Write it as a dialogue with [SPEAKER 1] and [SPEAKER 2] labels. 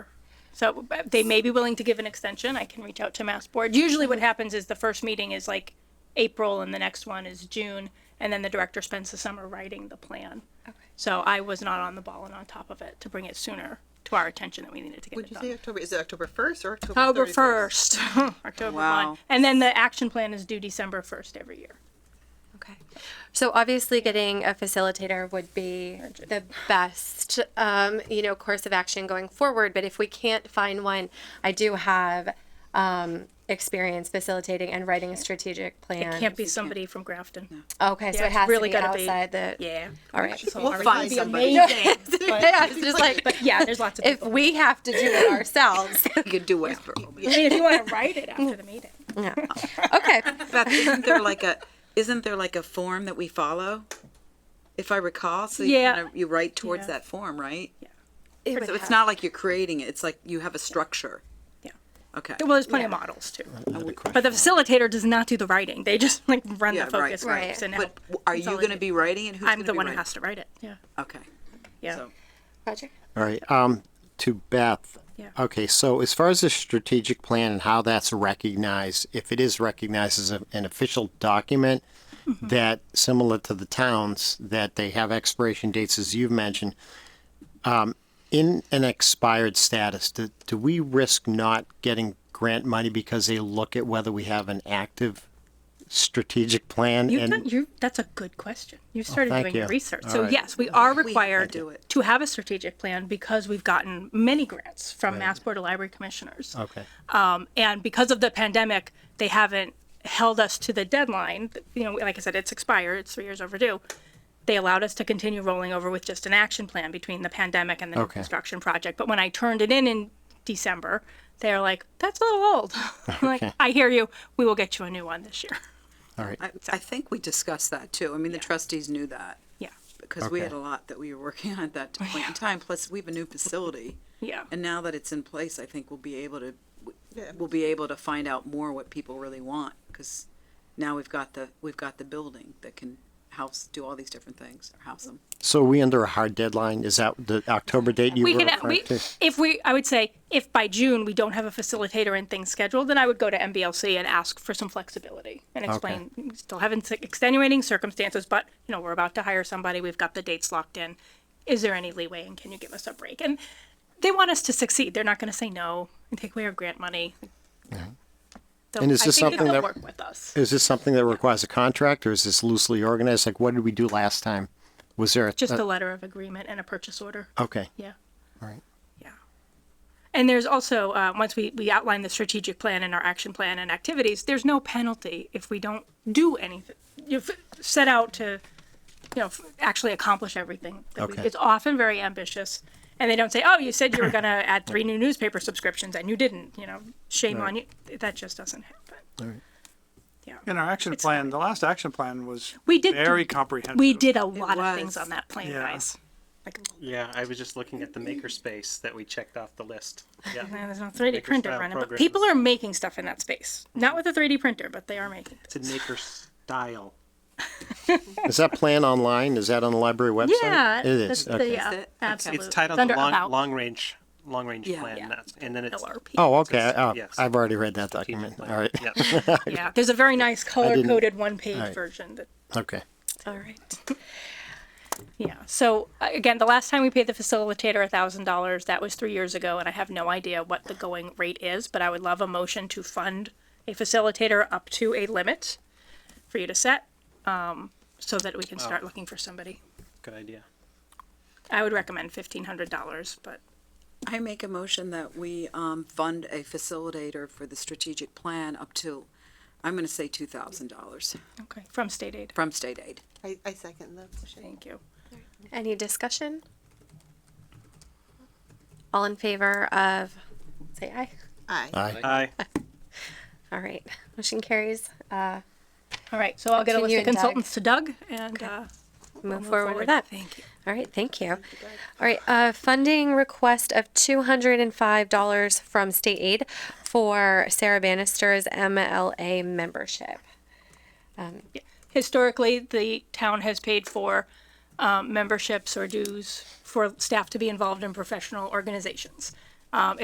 [SPEAKER 1] So uh, they may be willing to give an extension. I can reach out to Mass Board. Usually what happens is the first meeting is like April and the next one is June. And then the director spends the summer writing the plan.
[SPEAKER 2] Okay.
[SPEAKER 1] So I was not on the ball and on top of it to bring it sooner to our attention that we needed to get
[SPEAKER 3] Would
[SPEAKER 1] it
[SPEAKER 3] you say
[SPEAKER 1] done.
[SPEAKER 3] October? Is it October first or October?
[SPEAKER 1] October
[SPEAKER 3] 31st?
[SPEAKER 1] first, October one.
[SPEAKER 4] Wow.
[SPEAKER 1] And then the action plan is due December first every year.
[SPEAKER 2] Okay. So obviously, getting a facilitator would be the best, um, you know, course of action going forward. But if we can't find one, I do have um, experience facilitating and writing a strategic plan.
[SPEAKER 1] It can't be somebody from Grafton.
[SPEAKER 2] Okay, so
[SPEAKER 1] Yeah,
[SPEAKER 2] it
[SPEAKER 1] it's
[SPEAKER 2] has
[SPEAKER 1] really
[SPEAKER 2] to be
[SPEAKER 1] gotta be-
[SPEAKER 2] outside the.
[SPEAKER 1] Yeah.
[SPEAKER 2] All right.
[SPEAKER 1] So
[SPEAKER 3] We'll
[SPEAKER 1] are we
[SPEAKER 3] find
[SPEAKER 1] gonna be
[SPEAKER 3] somebody.
[SPEAKER 1] amazing?
[SPEAKER 2] yeah, it's just like
[SPEAKER 1] But yeah, there's lots of
[SPEAKER 2] if
[SPEAKER 1] people.
[SPEAKER 2] we have to do it ourselves.
[SPEAKER 4] You could do it.
[SPEAKER 1] I mean, if you want to write it after the meeting.
[SPEAKER 2] Yeah. Okay.
[SPEAKER 4] Beth, isn't there like a, isn't there like a form that we follow? If I recall, so you,
[SPEAKER 1] Yeah.
[SPEAKER 4] kind of- you write towards
[SPEAKER 1] Yeah.
[SPEAKER 4] that form, right?
[SPEAKER 2] It would
[SPEAKER 4] So it's
[SPEAKER 2] have-
[SPEAKER 4] not like you're creating it. It's like you have a structure.
[SPEAKER 1] Yeah.
[SPEAKER 4] Okay.
[SPEAKER 1] Well, there's plenty of models too.
[SPEAKER 5] Another
[SPEAKER 1] But
[SPEAKER 5] question.
[SPEAKER 1] the facilitator does not the writing. They just like run
[SPEAKER 4] Yeah,
[SPEAKER 1] the
[SPEAKER 4] right.
[SPEAKER 1] focus
[SPEAKER 2] Right.
[SPEAKER 1] groups and
[SPEAKER 4] But
[SPEAKER 1] help.
[SPEAKER 4] w- are you going to
[SPEAKER 1] consolidate.
[SPEAKER 4] be writing it? Who's
[SPEAKER 1] I'm
[SPEAKER 4] gonna
[SPEAKER 1] the
[SPEAKER 4] be
[SPEAKER 1] one who
[SPEAKER 4] writing
[SPEAKER 1] has to write it. Yeah.
[SPEAKER 4] it? Okay.
[SPEAKER 1] Yeah.
[SPEAKER 4] So
[SPEAKER 2] Roger.
[SPEAKER 5] All right, um, to Beth.
[SPEAKER 1] Yeah.
[SPEAKER 5] Okay, so as far as the strategic plan and how that's recognized, if it is recognized as a- an official document
[SPEAKER 1] Mm-hmm.
[SPEAKER 5] that, similar to the towns, that they have expiration dates, as you've mentioned, um, in an expired status, do, do we risk not getting grant money because they look at whether we have an active strategic plan?
[SPEAKER 1] You've
[SPEAKER 5] and Oh,
[SPEAKER 1] done, you that's a good question. You started
[SPEAKER 5] thank
[SPEAKER 1] doing
[SPEAKER 5] you.
[SPEAKER 1] research.
[SPEAKER 5] All
[SPEAKER 1] so
[SPEAKER 5] right.
[SPEAKER 1] yes, we are required
[SPEAKER 4] do it.
[SPEAKER 1] to have a strategic plan because we've gotten many grants from Mass Board of Library Commissioners.
[SPEAKER 5] Okay,
[SPEAKER 1] Um, and because of the pandemic, they haven't held us to the deadline. You know, like I said, it's expired, it's three years overdue. They allowed us to continue rolling over with just an action plan between the pandemic and the new
[SPEAKER 5] Okay.
[SPEAKER 1] construction project. But when I turned it in in December, they're like, that's a little old. I'm like,
[SPEAKER 5] Okay.
[SPEAKER 1] I hear you. We will get you a new one this year.
[SPEAKER 5] all right.
[SPEAKER 4] I, I think we discussed that too. I mean, the trustees knew that
[SPEAKER 1] Yeah.
[SPEAKER 4] because we had a
[SPEAKER 5] Okay.
[SPEAKER 4] lot that we were working on at that point in time. Plus, we have a new facility.
[SPEAKER 1] Yeah.
[SPEAKER 4] And now that it's in place, I think we'll be able to w-
[SPEAKER 3] Yeah.
[SPEAKER 4] we'll be able to find out more what people really want because now we've got the we've got the building that can house do all these different things or house them.
[SPEAKER 5] So are we under a hard deadline? Is that the October date you
[SPEAKER 1] we
[SPEAKER 5] were
[SPEAKER 1] can we,
[SPEAKER 5] referring to?
[SPEAKER 1] if we i would say if by june we don't have a facilitator and things scheduled then i would go to mblc and ask for some flexibility and explain we still having extenuating circumstances but you know we're about to hire somebody we've got the dates locked in is there any leeway and can you give us a break and they want us to succeed they're not going to say no and take away our grant money They'll-
[SPEAKER 5] And is this
[SPEAKER 1] I think
[SPEAKER 5] something
[SPEAKER 1] they'll
[SPEAKER 5] that- Uh,
[SPEAKER 1] work with us
[SPEAKER 5] Is this something that requires a contract or is this loosely organized? Like, what did we do last time? Was there a?
[SPEAKER 1] just
[SPEAKER 5] a-
[SPEAKER 1] a letter of agreement and a purchase order
[SPEAKER 5] Okay,
[SPEAKER 1] yeah
[SPEAKER 5] all right.
[SPEAKER 1] Yeah. And there's also, uh, once we, we outline the strategic plan and our action plan and activities, there's no penalty if we don't do anything. You've set out to, you know, f- actually accomplish everything. that we-
[SPEAKER 5] Okay.
[SPEAKER 1] It's often very ambitious. And they don't say, oh, you said you were going to add three new newspaper subscriptions and you didn't, you know, shame on you. That just doesn't happen. Yeah.
[SPEAKER 6] In our action
[SPEAKER 1] It's
[SPEAKER 6] plan, the last action plan was
[SPEAKER 1] We did do-
[SPEAKER 6] very comprehensive.
[SPEAKER 1] We did a lot of
[SPEAKER 4] was.
[SPEAKER 1] things on that plan,
[SPEAKER 6] Yeah.
[SPEAKER 1] guys. Like,
[SPEAKER 7] Yeah, I was just looking at the makerspace that we checked off the list.
[SPEAKER 1] man,
[SPEAKER 7] Yeah,
[SPEAKER 1] there's no 3D
[SPEAKER 7] Maker
[SPEAKER 1] printer
[SPEAKER 7] style
[SPEAKER 1] running, but
[SPEAKER 7] programs.
[SPEAKER 1] people are making stuff in that space. Not with a 3D printer, but they are making.
[SPEAKER 7] it's in maker style.
[SPEAKER 5] Is that plan online? Is that on the library website?
[SPEAKER 1] Yeah,
[SPEAKER 5] It is,
[SPEAKER 1] that's the- uh,
[SPEAKER 5] okay.
[SPEAKER 1] yeah,
[SPEAKER 4] Is it?
[SPEAKER 1] absolutely.
[SPEAKER 7] It's titled
[SPEAKER 1] Under
[SPEAKER 7] the long,
[SPEAKER 1] about
[SPEAKER 7] long range, long range
[SPEAKER 4] Yeah.
[SPEAKER 7] plan.
[SPEAKER 4] Yeah.
[SPEAKER 7] that's- And then it's.
[SPEAKER 1] LRP.
[SPEAKER 5] Oh, okay, oh,
[SPEAKER 7] yes.
[SPEAKER 5] I've already read that document, all
[SPEAKER 7] plan.
[SPEAKER 5] right,
[SPEAKER 7] Yeah.
[SPEAKER 1] yeah. There's a very nice color
[SPEAKER 5] didn't-
[SPEAKER 1] coded one page
[SPEAKER 5] right.
[SPEAKER 1] version that
[SPEAKER 5] okay.
[SPEAKER 1] All right. Yeah, so uh, again, the last time we paid the facilitator a thousand dollars, that was three years ago, and I have no idea what the going rate is, but I would love a motion to fund a facilitator up to a limit for you to set, um, so that we can start looking for somebody.
[SPEAKER 7] Good idea.
[SPEAKER 1] I would recommend fifteen hundred dollars, but
[SPEAKER 4] I make a motion that we um, fund a facilitator for the strategic plan up to I'm going to say two thousand dollars
[SPEAKER 1] okay, from state aid.
[SPEAKER 4] from state aid.
[SPEAKER 3] I, I second the motion.
[SPEAKER 1] Thank you.
[SPEAKER 2] Any discussion? All in favor of, say aye.
[SPEAKER 3] Aye.
[SPEAKER 5] Aye.
[SPEAKER 7] Aye.
[SPEAKER 2] All right. Motion carries. Uh,
[SPEAKER 1] All right, so I'll get a list
[SPEAKER 2] Continue,
[SPEAKER 1] of
[SPEAKER 2] Doug.
[SPEAKER 1] consultants to Doug and, uh,
[SPEAKER 2] move,
[SPEAKER 1] move
[SPEAKER 2] forward, with that.
[SPEAKER 1] Thank you.
[SPEAKER 2] All right. Thank you. All right. Uh, funding request of $205 from state aid for Sarah Bannister's MLA membership.
[SPEAKER 1] historically, the town has paid for um, memberships or dues for staff to be involved in professional organizations. Um,